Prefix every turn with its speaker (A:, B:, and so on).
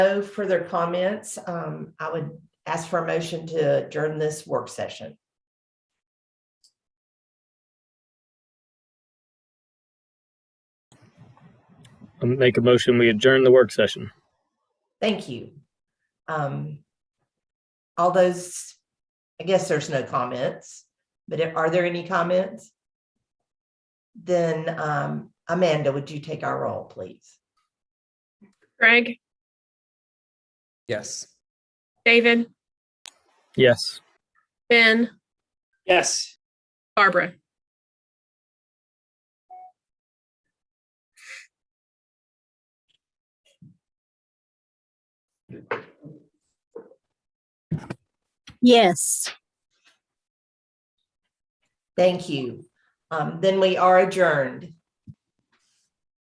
A: No further comments. Um, I would ask for a motion to adjourn this work session.
B: I'll Make a motion, we adjourn the work session.
A: Thank you. Um, all those, I guess there's no comments, but are there any comments? Then, um, Amanda, would you take our roll, please?
C: Greg,
D: Yes.
C: David,
B: Yes.
C: Ben,
D: Yes.
C: Barbara.
E: Yes.
A: Thank you. Um, then we are adjourned.